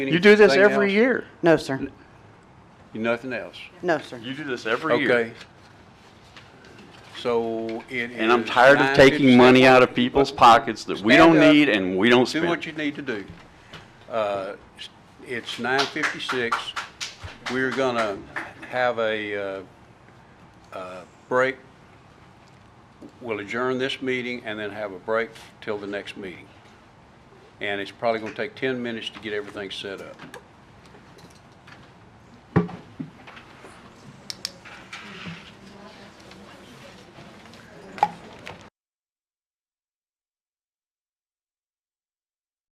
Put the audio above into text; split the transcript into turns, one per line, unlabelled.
You do this
Anything
every
else?
year.
No, sir.
Nothing else?
No, sir.
You do this every year.
Okay. So it is.
And I'm tired of taking
9:57.
money out of people's pockets that we don't
Stand up.
need and we don't
Do what
spend.
you need to do. Uh, It's nine fifty-six. We're gonna have a, uh, uh, break. We'll adjourn this meeting and then have a break till the next meeting. And it's probably gonna take ten minutes to get everything set up.